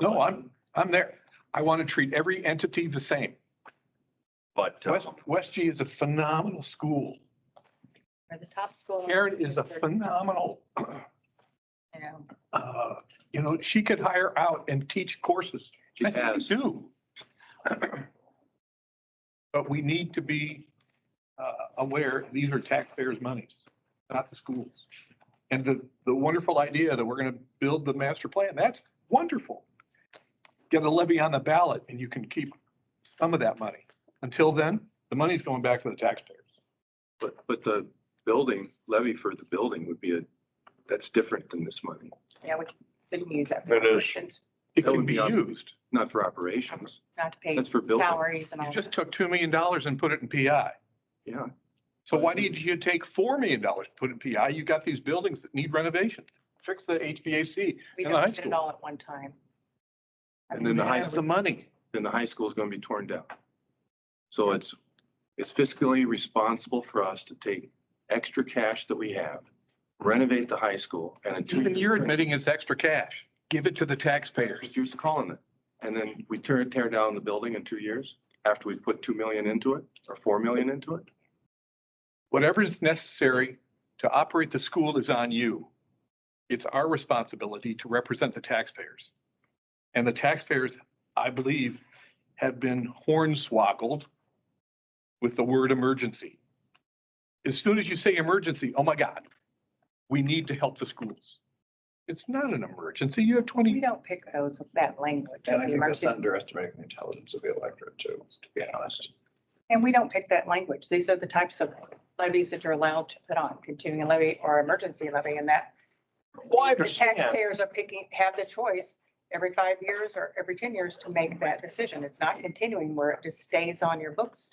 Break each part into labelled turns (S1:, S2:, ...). S1: No, I'm, I'm there. I want to treat every entity the same.
S2: But uh,
S3: um,
S1: West, West G is a phenomenal school.
S4: Or the top school.
S1: Karen is a phenomenal,
S4: You know,
S1: uh, you know, she could hire out and teach courses.
S2: she
S1: I think we
S2: has,
S1: Do. But we need to be uh, aware, these are taxpayers' monies, not the schools. And the, the wonderful idea that we're going to build the master plan, that's wonderful. Get a levy on the ballot and you can keep some of that money. Until then, the money's going back to the taxpayers.
S2: but, but the building levy for the building would be a, that's different than this money,
S4: yeah, we couldn't use that.
S3: It is.
S4: Since
S1: It
S2: That
S1: can
S2: would
S1: be
S2: be un-
S1: used.
S2: not for operations.
S4: Not to pay
S2: That's for building.
S4: salaries and
S1: You
S4: all.
S1: just took
S4: that.
S1: $2 million and put it in PI.
S2: Yeah.
S1: So why did you take four million dollars, put in PI? You got these buildings that need renovations. Fix the HVAC.
S4: We
S1: in the high
S4: don't did
S1: school.
S4: it all at one time.
S2: And then the high
S1: That's the money.
S2: Then the high school is going to be torn down. So it's, it's fiscally responsible for us to take extra cash that we have, renovate the high school and in two
S1: Even
S2: years-
S1: you're admitting it's extra cash. Give it to the
S2: That's
S1: taxpayers.
S2: what You're calling it. And then we tear, tear down the building in two years after we put 2 million into it or 4 million into it?
S1: Whatever is necessary to operate the school is on you. It's our responsibility to represent the taxpayers. And the taxpayers, I believe, have been hornswoggled with the word emergency. As soon as you say emergency, oh my God, we need to help the schools. It's not an emergency. You have
S4: We
S1: 20,
S4: don't pick those with that language.
S3: And I think that's
S4: emergency-
S3: underestimating the intelligence of the electorate too, to be honest.
S4: And we don't pick that language. These are the types of levies that you're allowed to put on, continuing levy or emergency levy and that.
S3: Well, Oh, I
S4: the Taxpayers are picking, have the choice every five years or every ten years to make that decision. It's not continuing where it just stays on your books.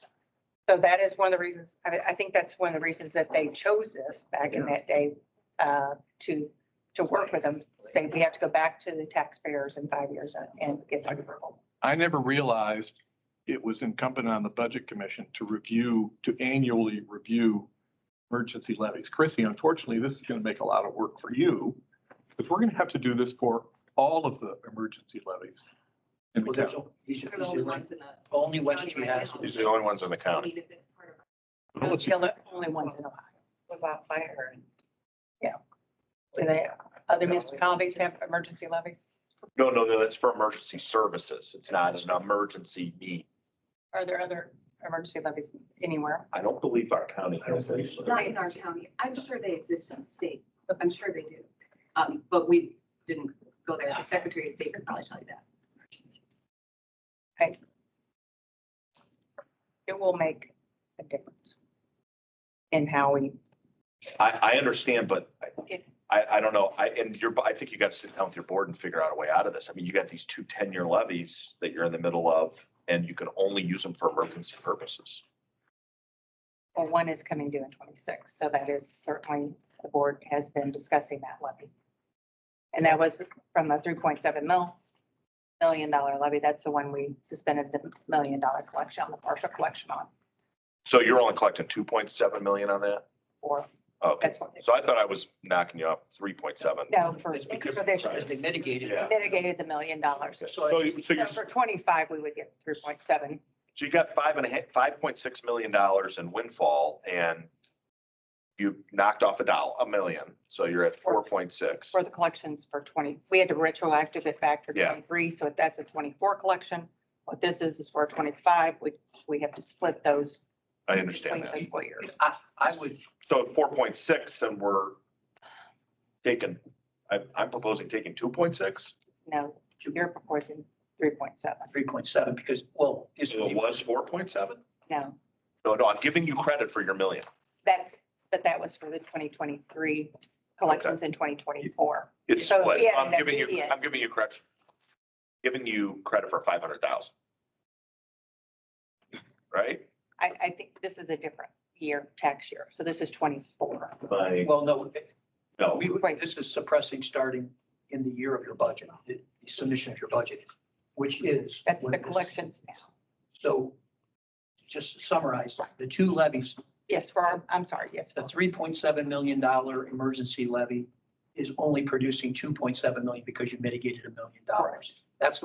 S4: So that is one of the reasons, I, I think that's one of the reasons that they chose this back in that day, uh, to, to work with them. Say we have to go back to the taxpayers in five years and- and give them approval.
S1: I never realized it was incumbent on the Budget Commission to review, to annually review emergency levies. Chrissy, unfortunately, this is going to make a lot of work for you because we're going to have to do this for all of the emergency levies. in the
S5: Well, there's,
S1: county.
S5: he's, he's
S6: They're the only ones in the
S5: only West
S6: county
S5: Street
S6: right
S5: has.
S6: now.
S3: These are the only ones in the county.
S6: county that's part of
S1: Well, let's-
S4: They're the only ones in Ohio.
S6: Without fire and.
S4: Do they, other municipalities have emergency levies?
S3: No, no, no, that's for emergency services. It's not an emergency need.
S4: Are there other emergency levies anywhere?
S3: I don't believe our county has any.
S6: Not in our county. I'm sure they exist in the state. I'm sure they do. Um, but we didn't go there. The Secretary of State could probably tell you that.
S4: It will make a difference in how we,
S3: I, I understand, but I- I, I don't know. I, and you're, I think you got to sit down with your board and figure out a way out of this. I mean, you got these two 10-year levies that you're in the middle of and you can only use them for emergency purposes.
S4: well, one is coming due in twenty-six, so that is certainly, the board has been discussing that levy. And that was from the three point seven mil, million dollar levy. That's the one we suspended the million dollar collection on, the partial collection on,
S3: So you're only collecting 2.7 million on that?
S4: or,
S3: Okay,
S4: That's what-
S3: so I thought I was knocking you up 3.7.
S4: no, for
S5: It's because,
S4: for this year.
S5: because they mitigated.
S3: Yeah.
S4: mitigated the million dollars.
S5: So
S3: So,
S5: I-
S3: you- so
S4: So
S3: you're,
S4: For twenty-five, we would get three point seven.
S3: so you got five and a half, five point six million dollars in windfall and you knocked off a dollar, a million, so you're at four point six.
S4: for the collections for 20, we had to retroactive it back to
S3: Yeah.
S4: 23, so if that's a 24 collection. What this is, is for 25, we, we have to split those.
S3: I understand
S4: between
S3: that.
S4: fiscal years.
S5: I, I would,
S3: So four point six and we're taking, I, I'm proposing taking two point six.
S4: No, you're proposing 3.7,
S5: three point seven, because, well, it's.
S3: So it was four point seven?
S4: no,
S3: No, no, I'm giving you credit for your million.
S4: that's, but that was for the 2023 collections in 2024.
S3: It's
S4: So
S3: split.
S4: we had
S3: I'm
S4: an
S3: giving you,
S4: immediate-
S3: I'm giving you credit. Giving you credit for five hundred thousand. Right?
S4: I, I think this is a different year, tax year, so this is 24.
S3: Like,
S5: Well, no,
S3: no.
S5: we,
S4: Right.
S5: this is suppressing starting in the year of your budget, the submission of your budget, which is.
S4: That's
S5: when
S4: the
S5: this-
S4: collections now.
S5: So just to summarize, the two levies,
S4: Yes, for our, I'm sorry, yes,
S5: the
S4: for
S5: three point seven million dollar emergency levy is only producing two point seven million because you mitigated a million dollars. That's the